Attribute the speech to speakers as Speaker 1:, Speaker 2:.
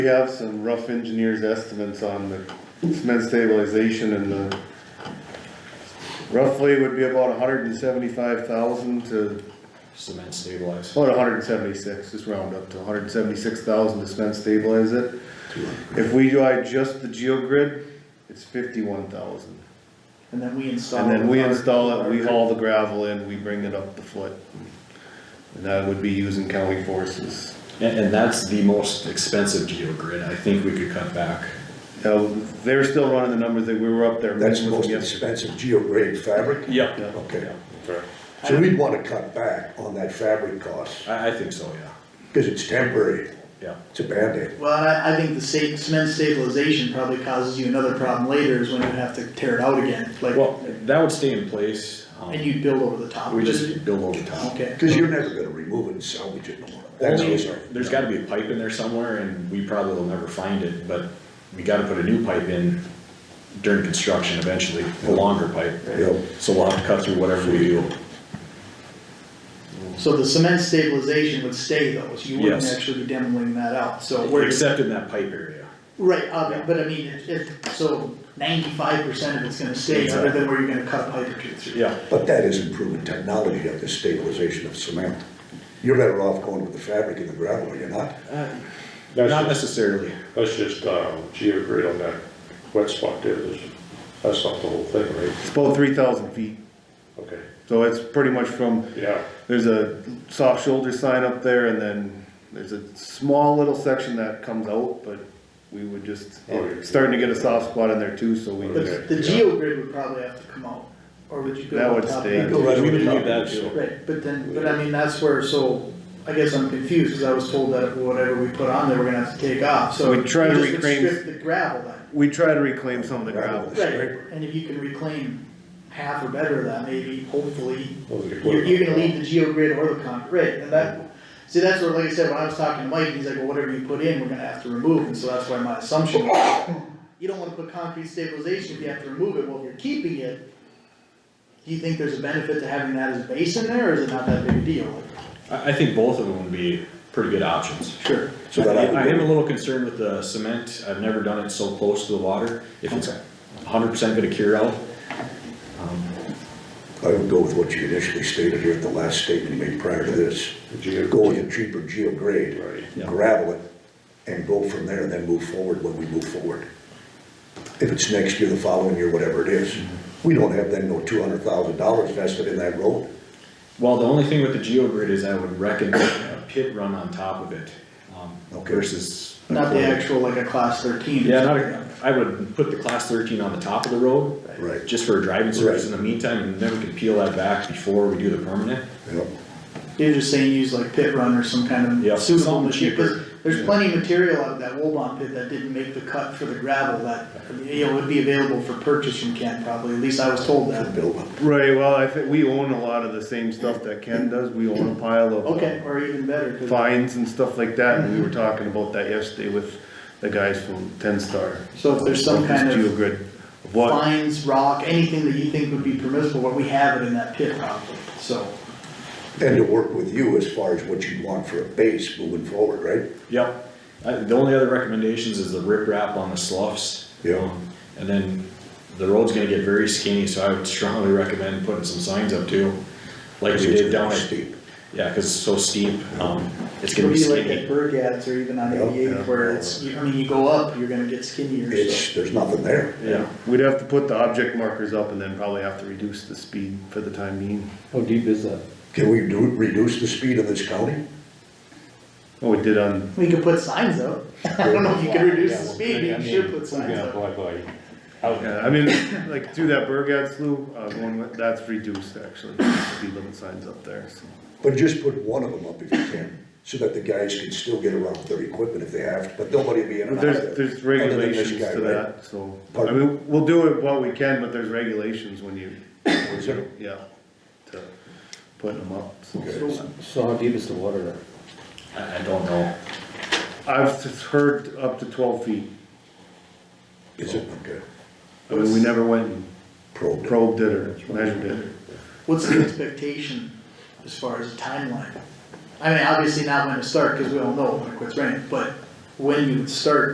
Speaker 1: We have some rough engineers' estimates on the cement stabilization and the roughly would be about hundred and seventy-five thousand to,
Speaker 2: cement stabilized.
Speaker 1: about hundred and seventy-six, just round up to hundred and seventy-six thousand to cement stabilize it. If we do just the geogrid, it's fifty-one thousand.
Speaker 3: And then we install.
Speaker 1: And then we
Speaker 3: our-
Speaker 1: install it, we haul the gravel in, we bring it up the foot. And that would be using county forces.
Speaker 2: And, and that's the most expensive geogrid, I think we could cut back.
Speaker 1: Now, they're still running the numbers that we were up there.
Speaker 4: That's the
Speaker 1: with
Speaker 4: most
Speaker 1: them yesterday.
Speaker 4: expensive geograde fabric?
Speaker 2: Yeah.
Speaker 1: Yeah.
Speaker 4: Okay. So we'd wanna cut back on that fabric cost,
Speaker 2: I, I think so, yeah,
Speaker 4: because it's temporary,
Speaker 2: yeah.
Speaker 4: it's a Band-Aid.
Speaker 3: Well, and I, I think the sta- cement stabilization probably causes you another problem later is when you have to tear it out again, like,
Speaker 2: Well, that would stay in place, um,
Speaker 3: and you build over the top.
Speaker 2: we
Speaker 3: of it.
Speaker 2: just build over top.
Speaker 3: Okay.
Speaker 4: Because you're never gonna remove it and salvage it no more. That's
Speaker 2: Only,
Speaker 4: easy.
Speaker 2: there's gotta be a pipe in there somewhere, and we probably will never find it, but we gotta put a new pipe in during construction eventually, a longer pipe.
Speaker 4: Yep.
Speaker 2: So we'll have to cut through whatever we do.
Speaker 3: So the cement stabilization would stay though, so you wouldn't
Speaker 2: Yes.
Speaker 3: actually be demoing that out, so
Speaker 2: We're
Speaker 3: we're.
Speaker 2: except in that pipe area.
Speaker 3: Right, uh, but I mean, if, if, so ninety-five percent of it's gonna stay, other than where you're gonna cut a pipe or two through.
Speaker 2: Yeah,
Speaker 4: But that is improving technology of the stabilization of cement. You're better off going with the fabric and the gravel, are you not?
Speaker 2: not
Speaker 5: That's,
Speaker 2: necessarily.
Speaker 5: that's just, um, geogrid on that wet spot there, There's- that's not the whole thing, right?
Speaker 1: It's about three thousand feet,
Speaker 5: Okay,
Speaker 1: so it's pretty much from,
Speaker 5: yeah,
Speaker 1: there's a soft shoulder sign up there and then there's a small little section that comes out, but we would just,
Speaker 5: Oh, yeah.
Speaker 1: it's starting to get a soft spot in there too, so we
Speaker 3: But
Speaker 1: just,
Speaker 3: the geogrid would probably have to come out, or would you go
Speaker 1: That
Speaker 3: on
Speaker 1: would
Speaker 3: top of
Speaker 1: stay.
Speaker 3: that?
Speaker 4: Go right
Speaker 2: We
Speaker 4: over
Speaker 2: would
Speaker 4: the top
Speaker 2: leave
Speaker 4: of
Speaker 2: that
Speaker 4: it,
Speaker 2: too.
Speaker 3: Right, but then, but I mean, that's where, so, I guess I'm confused, cause I was told that whatever we put on there, we're gonna have to take off, so.
Speaker 1: We try to
Speaker 3: we just would
Speaker 1: reclaim-
Speaker 3: Strip the gravel then.
Speaker 1: we try to reclaim some of the gravel.
Speaker 4: Scraper.
Speaker 3: Right, and if you can reclaim half or better of that, maybe, hopefully,
Speaker 5: Well, the
Speaker 3: you're, you're gonna
Speaker 5: equipment.
Speaker 3: leave the geogrid or the concrete, right, and that, see, that's where, like I said, when I was talking to Mike, he's like, well, whatever you put in, we're gonna have to remove, and so that's why my assumption was, you don't wanna put concrete stabilization if you have to remove it, well, if you're keeping it, do you think there's a benefit to having that as a base in there, or is it not that big a deal?
Speaker 2: I, I think both of them would be pretty good options.
Speaker 3: Sure.
Speaker 4: So that I would
Speaker 2: I am
Speaker 4: go-
Speaker 2: a little concerned with the cement, I've never done it so close to the water, if it's hundred percent gonna cure out.
Speaker 4: I would go with what you initially stated here at the last statement you made prior to this.
Speaker 5: The geo-
Speaker 4: Go with a cheaper geograde.
Speaker 5: Right.
Speaker 2: Yeah.
Speaker 4: Gravel it and go from there and then move forward when we move forward. If it's next year, the following year, whatever it is,
Speaker 5: Mm-hmm.
Speaker 4: we don't have then no two hundred thousand dollars vested in that road.
Speaker 2: Well, the only thing with the geogrid is I would recommend a pit run on top of it, um,
Speaker 4: Okay.
Speaker 2: versus. a
Speaker 3: Not the
Speaker 2: quarry.
Speaker 3: actual, like a class thirteen.
Speaker 2: Yeah, not, a- I would put the class thirteen on the top of the road.
Speaker 4: Right.
Speaker 2: Just for a driving surface in
Speaker 4: Right.
Speaker 2: the meantime, and then we can peel that back before we do the permanent.
Speaker 4: you know?
Speaker 3: You're just saying use like pit run or some kind
Speaker 2: Yeah,
Speaker 3: of suitable
Speaker 2: something
Speaker 3: material, 'cause
Speaker 2: cheaper.
Speaker 3: there's plenty of material out of that Wobon pit that didn't make the cut for the gravel that, you know, would be available for purchase from Ken probably, at least I was told that.
Speaker 4: Build up.
Speaker 1: Right, well, I think, we own a lot of the same stuff that Ken does, we own a pile of.
Speaker 3: Okay, or even better, 'cause-
Speaker 1: Fines and stuff like that, and we were talking about that yesterday with the guys from Ten Star.
Speaker 3: so if there's some
Speaker 1: About this
Speaker 3: kind of
Speaker 1: Geogrid, of what.
Speaker 3: fines, rock, anything that you think would be permissible, what we have it in that pit probably, so.
Speaker 4: And to work with you as far as what you'd want for a base moving forward, right?
Speaker 2: Yep, I, the only other recommendations is the rip wrap on the sloughs.
Speaker 4: Yeah.
Speaker 2: Um, And then the road's gonna get very skinny, so I would strongly recommend putting some signs up too, like we did down at,
Speaker 4: Steep.
Speaker 2: yeah, cause it's so steep, um, it's
Speaker 3: It'll
Speaker 2: gonna be
Speaker 3: be like at
Speaker 2: skinny.
Speaker 3: Bergads or even on
Speaker 4: Yeah,
Speaker 3: eighty-eight
Speaker 1: yeah.
Speaker 3: where it's, you- I mean, you go up, you're gonna get skinnier, so.
Speaker 4: It's, there's nothing there.
Speaker 2: Yeah,
Speaker 1: We'd have to put the object markers up and then probably have to reduce the speed for the time being.
Speaker 6: How deep is that?
Speaker 4: Can we do, reduce the speed in this county?
Speaker 1: What we Oh, did on,
Speaker 3: We could put signs up. I don't know if you can reduce the speed,
Speaker 5: I
Speaker 3: but you
Speaker 5: mean,
Speaker 3: should put signs
Speaker 5: Yeah,
Speaker 3: up.
Speaker 5: bye bye. How's
Speaker 1: yeah,
Speaker 5: that?
Speaker 1: I mean, like through that Burgad slough, uh, going with, that's reduced actually, speed limit signs up there, so.
Speaker 4: But just put one of them up if you can, so that the guys can still get around with their equipment if they have, to. but nobody will be in and out of there.
Speaker 1: There's, there's
Speaker 4: other than this
Speaker 1: regulations
Speaker 4: guy,
Speaker 1: to
Speaker 4: right?
Speaker 1: that, so, I
Speaker 4: Pardon?
Speaker 1: mean, we'll do it what we can, but there's regulations when you,
Speaker 4: Is there?
Speaker 1: yeah, to putting them up, so.
Speaker 4: Okay.
Speaker 6: So how deep is the water there?
Speaker 2: I, I don't know.
Speaker 1: I've just heard up to twelve feet,
Speaker 4: Is it, okay,
Speaker 1: I mean, we never went and
Speaker 4: probed.
Speaker 1: probed it or measured it.
Speaker 3: What's the expectation as far as the timeline? I mean, obviously not when to start, cause we all know when it quits raining, but when you would start